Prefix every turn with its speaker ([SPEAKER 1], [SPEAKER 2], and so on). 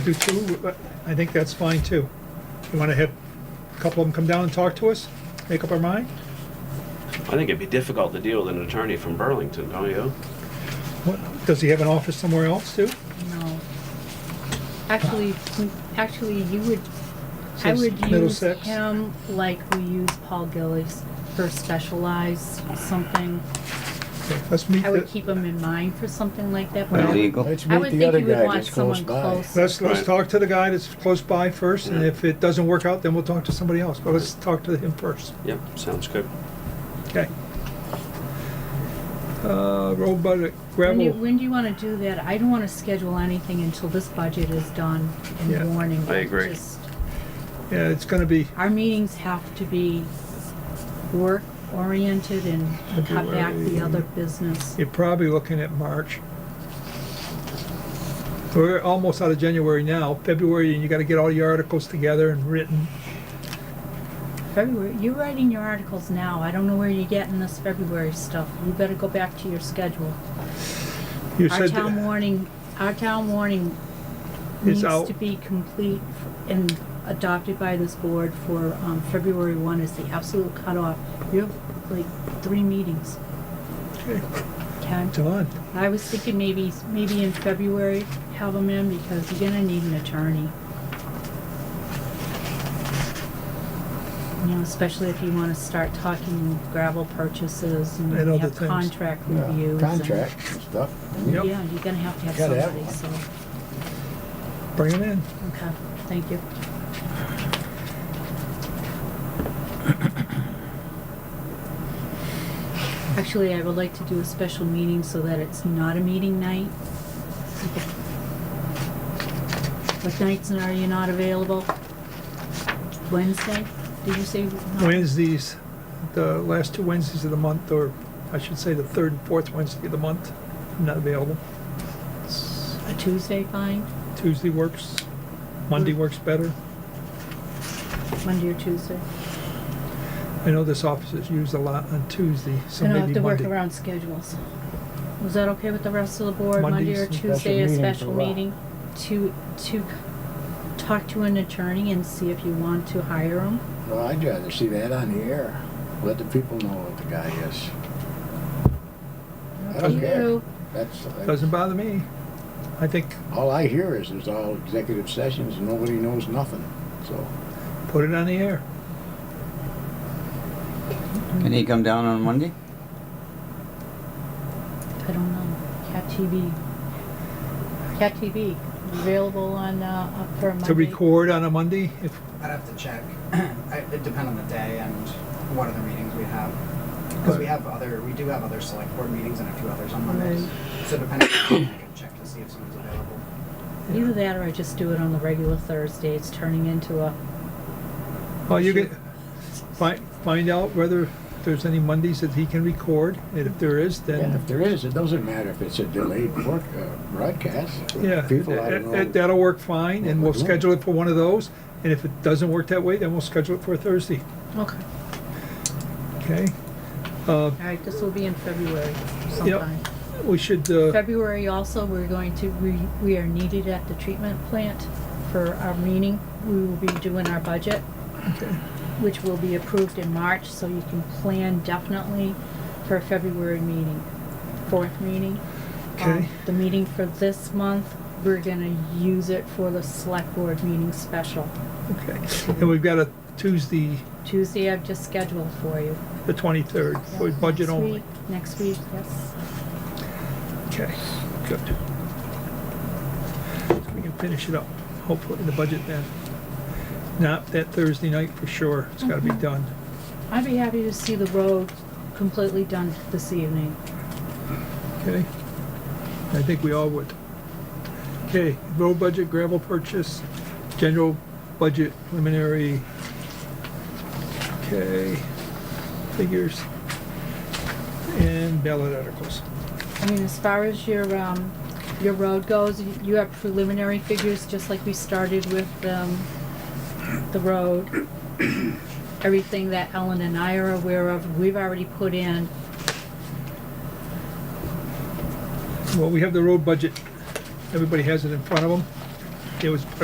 [SPEAKER 1] do two, but I think that's fine too. You wanna have a couple of them come down and talk to us, make up our mind?
[SPEAKER 2] I think it'd be difficult to deal with an attorney from Burlington, don't you?
[SPEAKER 1] What, does he have an office somewhere else too?
[SPEAKER 3] No. Actually, actually, you would, I
[SPEAKER 1] Says
[SPEAKER 3] would use
[SPEAKER 1] Middlesex.
[SPEAKER 3] him like we use Paul Gillis for specialized something.
[SPEAKER 1] Okay, Let's meet,
[SPEAKER 3] I would
[SPEAKER 1] the-
[SPEAKER 3] keep him in mind for something like that. but I
[SPEAKER 1] Well,
[SPEAKER 3] would-
[SPEAKER 4] Illegal.
[SPEAKER 5] Let's
[SPEAKER 3] I
[SPEAKER 5] meet
[SPEAKER 3] would
[SPEAKER 5] the
[SPEAKER 3] think
[SPEAKER 5] other
[SPEAKER 3] you would
[SPEAKER 5] guy
[SPEAKER 3] want
[SPEAKER 5] that's close
[SPEAKER 3] someone
[SPEAKER 5] by.
[SPEAKER 3] close.
[SPEAKER 1] let's, let's
[SPEAKER 2] Right.
[SPEAKER 1] talk to the guy that's close by first, and
[SPEAKER 2] Yeah.
[SPEAKER 1] if it doesn't work out, then we'll talk to somebody else, but let's talk to him first,
[SPEAKER 2] Yep, sounds good.
[SPEAKER 1] okay? Uh, road budget,
[SPEAKER 3] When do, you-
[SPEAKER 1] gravel,
[SPEAKER 3] when do you wanna do that? I don't wanna schedule anything until this budget is done in
[SPEAKER 1] Yeah.
[SPEAKER 3] the morning.
[SPEAKER 2] I agree.
[SPEAKER 3] Just-
[SPEAKER 1] yeah, it's gonna be,
[SPEAKER 3] Our meetings have to be work-oriented and cut back the other business.
[SPEAKER 1] you're probably looking at March. We're almost out of January now, February, and you gotta get all your articles together and written.
[SPEAKER 3] February, you're writing your articles now. I don't know where you're getting this February stuff. You better go back to your schedule.
[SPEAKER 1] You
[SPEAKER 3] Our
[SPEAKER 1] said.
[SPEAKER 3] town warning, our town warning
[SPEAKER 1] It's
[SPEAKER 3] needs
[SPEAKER 1] out.
[SPEAKER 3] to be complete and adopted by this board for, um, February one is the absolute cutoff. You have like three meetings,
[SPEAKER 1] Okay,
[SPEAKER 3] okay?
[SPEAKER 1] It's on.
[SPEAKER 3] I was thinking maybe, maybe in February, have them in because you're gonna need an attorney. You know, especially if you wanna start talking gravel purchases and
[SPEAKER 1] And other
[SPEAKER 3] have
[SPEAKER 1] things.
[SPEAKER 3] contract
[SPEAKER 5] Yeah,
[SPEAKER 3] reviews. and-
[SPEAKER 5] Contract and stuff.
[SPEAKER 1] Yep.
[SPEAKER 3] Yeah, you're gonna have to have
[SPEAKER 5] Gotta have
[SPEAKER 3] somebody, so,
[SPEAKER 1] Bring them in.
[SPEAKER 3] okay, thank you. Actually, I would like to do a special meeting so that it's not a meeting night. What nights are you not available? Wednesday, did you say? not-
[SPEAKER 1] Wednesdays, the last two Wednesdays of the month, or I should say the third and fourth Wednesday of the month, I'm not available.
[SPEAKER 3] A Tuesday, fine,
[SPEAKER 1] Tuesday works,
[SPEAKER 3] Mm.
[SPEAKER 1] Monday works better.
[SPEAKER 3] Monday or Tuesday.
[SPEAKER 1] I know this office is used a lot on Tuesday, so
[SPEAKER 3] And I'll have
[SPEAKER 1] maybe
[SPEAKER 3] to work
[SPEAKER 1] Monday.
[SPEAKER 3] around schedules. Was that okay with the rest of the board, Monday
[SPEAKER 1] Monday's
[SPEAKER 3] or
[SPEAKER 1] a
[SPEAKER 5] special
[SPEAKER 3] Tuesday, a
[SPEAKER 5] meeting
[SPEAKER 3] special
[SPEAKER 5] for what?
[SPEAKER 3] meeting? To, to talk to an attorney and see if you want to hire him?
[SPEAKER 5] Well, I'd rather see that on the air. Let the people know what the guy is. I don't care.
[SPEAKER 3] You-
[SPEAKER 5] That's,
[SPEAKER 1] Doesn't bother me. I think,
[SPEAKER 5] all I hear is there's all executive sessions and nobody knows nothing, so.
[SPEAKER 1] put it on the air.
[SPEAKER 4] Can he come down on Monday?
[SPEAKER 3] I don't know, Cat TV. Cat TV, available on, uh, up for Monday?
[SPEAKER 1] To record on a Monday, if,
[SPEAKER 6] I'd have to check. I- It'd depend on the day and what other meetings we have. Because we have other, we do have other select board meetings and a few others on Mondays.
[SPEAKER 3] Right.
[SPEAKER 6] So depending on, the day, I can check to see if someone's available.
[SPEAKER 3] Either that or I just do it on the regular Thursday, it's turning into a,
[SPEAKER 1] well, you can, find, find out whether there's any Mondays that he can record, and if there is,
[SPEAKER 5] And
[SPEAKER 1] then,
[SPEAKER 5] if there is, it doesn't matter if it's a delayed broad- uh, broadcast.
[SPEAKER 1] yeah,
[SPEAKER 5] People, I don't
[SPEAKER 1] that-
[SPEAKER 5] know.
[SPEAKER 1] that'll work fine, and we'll
[SPEAKER 5] what we're doing.
[SPEAKER 1] schedule it for one of those. And if it doesn't work that way, then we'll schedule it for Thursday.
[SPEAKER 3] okay,
[SPEAKER 1] Okay, uh,
[SPEAKER 3] all right, this will be in February sometime.
[SPEAKER 1] we should, uh,
[SPEAKER 3] February also, we're going to, we, we are needed at the treatment plant for our meeting. We will be doing our budget, which will be approved in March, so you can plan definitely for a February meeting, fourth meeting. Um,
[SPEAKER 1] Okay.
[SPEAKER 3] The meeting for this month, we're gonna use it for the select board meeting special.
[SPEAKER 1] okay, and we've got a Tuesday,
[SPEAKER 3] Tuesday, I've just scheduled for you.
[SPEAKER 1] the twenty-third, for
[SPEAKER 3] Yeah,
[SPEAKER 1] budget
[SPEAKER 3] next
[SPEAKER 1] only.
[SPEAKER 3] week- Next week, yes.
[SPEAKER 1] Okay, good. So We can finish it up, hopefully, the budget then. Not that Thursday night for sure, it's gotta be done.
[SPEAKER 3] I'd be happy to see the road completely done this evening.
[SPEAKER 1] Okay? I think we all would. Okay, road budget, gravel purchase, general budget preliminary. Okay, figures. And ballot articles.
[SPEAKER 3] I mean, as far as your, um, your road goes, you- you have preliminary figures, just like we started with, um, the road. Everything that Ellen and I are aware of, we've already put in.
[SPEAKER 1] Well, we have the road budget. Everybody has it in front of them. it was